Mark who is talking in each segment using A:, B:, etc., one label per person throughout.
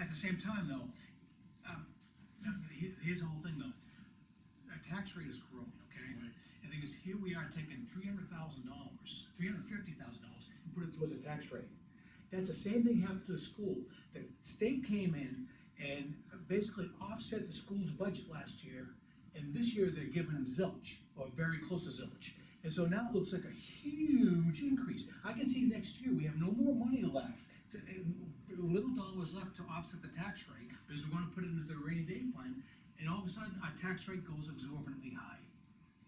A: At the same time, though, um, now, he- here's the whole thing, though. Our tax rate is growing, okay?
B: Right.
A: And the thing is, here we are taking three hundred thousand dollars, three hundred fifty thousand dollars, and put it towards a tax rate. That's the same thing happened to the school. The state came in and basically offset the school's budget last year, and this year they're giving them zilch, or very close to zilch. And so now it looks like a huge increase. I can see next year, we have no more money left, to- little dollars left to offset the tax rate, because we're gonna put it into the rainy day fund, and all of a sudden, our tax rate goes exorbitantly high.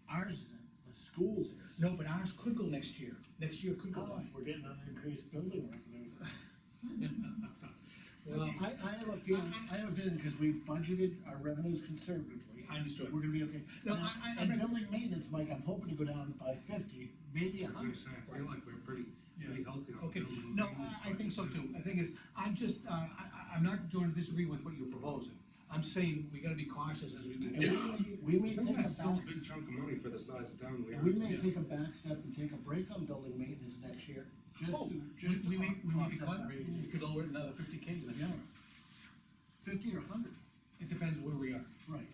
B: Ours isn't, the school's is.
A: No, but ours could go next year, next year could go
B: Oh,
A: high.
B: We're getting an increased building revenue.
A: Well,
B: I, I have a feeling, I have a feeling, because we budgeted our revenues conservatively.
A: I understood.
B: We're gonna be okay.
A: No,
B: Now,
A: I- I- I'm not-
B: And building maintenance, Mike, I'm hoping to go down by fifty, maybe a
C: As I
B: hundred.
C: say, I feel like we're pretty, pretty healthy on
A: Okay,
C: building.
A: no,
C: maintenance
A: I, I think so
C: budget.
A: too, the thing is, I'm just, uh, I, I, I'm not doing, disagree with what you're proposing. I'm saying we gotta be cautious as we
B: And
A: move.
B: we- We may
C: If
B: take
C: we're
B: a
C: gonna
B: back,
C: sell a big chunk of money for the size of town we are.
B: we may
A: Yeah.
B: take a back step and take a break on building maintenance next year, just
A: Oh,
B: to,
A: we,
B: just to
A: we may, we may be
B: offset
A: caught,
B: the rate.
A: we could lower it another fifty K next
B: Yeah.
A: year.
B: Fifty or a hundred,
A: It depends where we are,
B: right.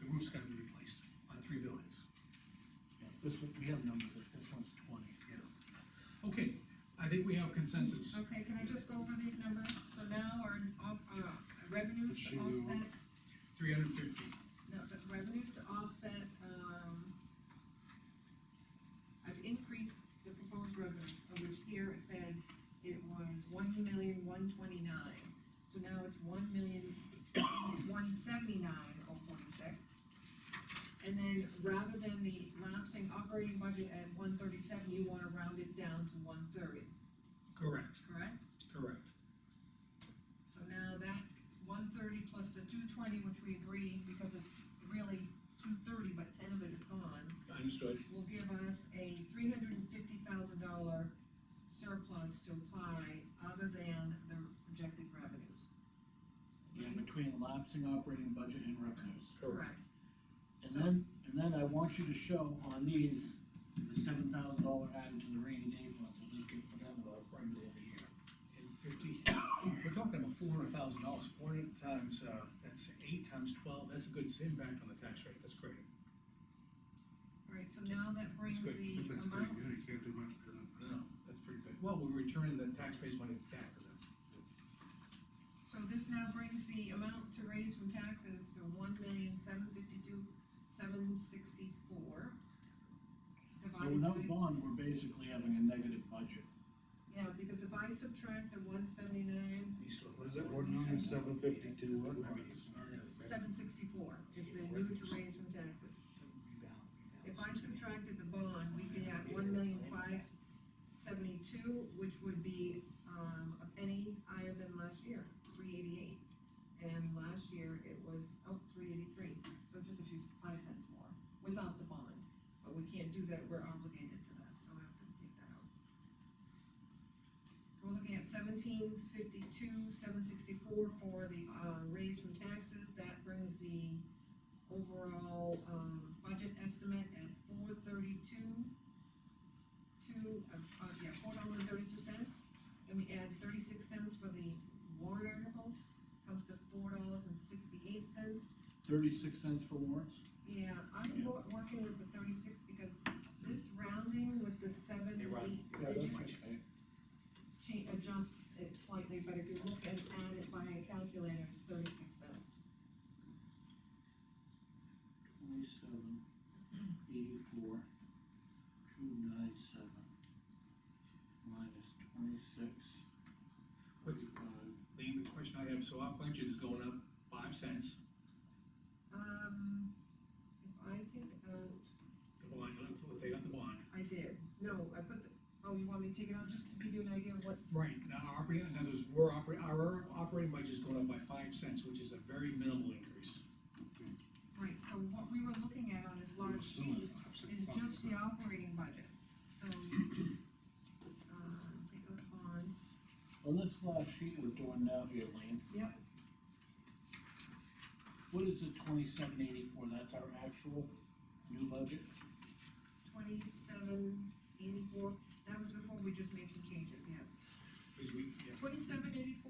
A: the roof's gotta be replaced on three buildings.
B: Yeah, This one, we have numbers, but this one's twenty.
A: Yeah. Okay, I think we have consensus.
D: Okay, can I just go over these numbers? So now our, op- uh, revenues to
C: Should we-
D: offset,
A: Three hundred fifty.
D: no, but revenues to offset, um, I've increased the proposed revenues, of which here it said it was one million, one twenty-nine. So now it's one million, one seventy-nine, oh forty-six. And then rather than the lapsing operating budget at one thirty-seven, you wanna round it down to one thirty,
A: Correct,
D: correct?
A: correct.
D: So now that one thirty plus the two twenty, which we agree, because it's really two thirty, but ten of it is gone,
A: Understood.
D: will give us a three hundred and fifty thousand dollar surplus to apply other than the projected revenues.
B: Yeah, between lapsing operating budget and revenues.
D: Correct.
B: And then, and then I want you to show on these, the seven thousand dollar added to the rainy day fund, so it doesn't get forgotten about right middle of the year.
A: And fifty, we're talking about four hundred thousand dollars, four hundred times, uh, that's eight times twelve, that's a good impact on the tax rate, that's great.
D: Alright, so now that brings
A: That's good.
D: the
C: But that's pretty
D: amount,
C: good, you can't do much uh, better than that.
A: No, that's pretty good. Well, we're returning the tax base money back to them.
D: so this now brings the amount to raise from taxes to one million, seven fifty-two, seven sixty-four.
B: So
D: Divided by.
B: without bond, we're basically having a negative budget.
D: Yeah, because if I subtract the one seventy-nine,
C: What is it, one million, seven fifty-two, what?
D: seven sixty-four is the new to raise from taxes. If I subtracted the bond, we'd be at one million five seventy-two, which would be, um, a penny higher than last year, three eighty-eight. And last year it was, oh, three eighty-three, so just a few, five cents more, without the bond. But we can't do that, we're obligated to that, so I have to take that out. So we're looking at seventeen fifty-two, seven sixty-four for the, uh, raise from taxes, that brings the overall, um, budget estimate at four thirty-two, two, uh, uh, yeah, four dollars and thirty-two cents, then we add thirty-six cents for the warrant articles, comes to four dollars and sixty-eight cents.
B: Thirty-six cents for warrants?
D: Yeah, I'm
B: Yeah.
D: wor- working with the thirty-six because this rounding with the seven,
A: Hey, Ron.
D: eight digits change, adjusts it slightly, but if you look and add it by a calculator, it's thirty-six cents.
B: Twenty-seven, eighty-four, two nine seven, minus twenty-six, thirty-five.
A: Lean, the question I have, so our budget is going up five cents.
D: Um, if I take out,
A: The bond, uh, they got the bond.
D: I did, no, I put the, oh, you want me to take it out just to give you an idea of what,
A: Right, now our operating, in other words, we're operating, our operating budget is going up by five cents, which is a very minimal increase.
D: right, so what we were looking at on this large sheet is just the operating budget, so, uh, um, take out the bond,
B: On this last sheet we're doing now here, Lane,
D: yep,
B: what is the twenty-seven eighty-four, that's our actual new budget?
D: twenty-seven eighty-four, that was before we just made some changes, yes.
A: Because we, yeah,
D: Twenty-seven eighty-four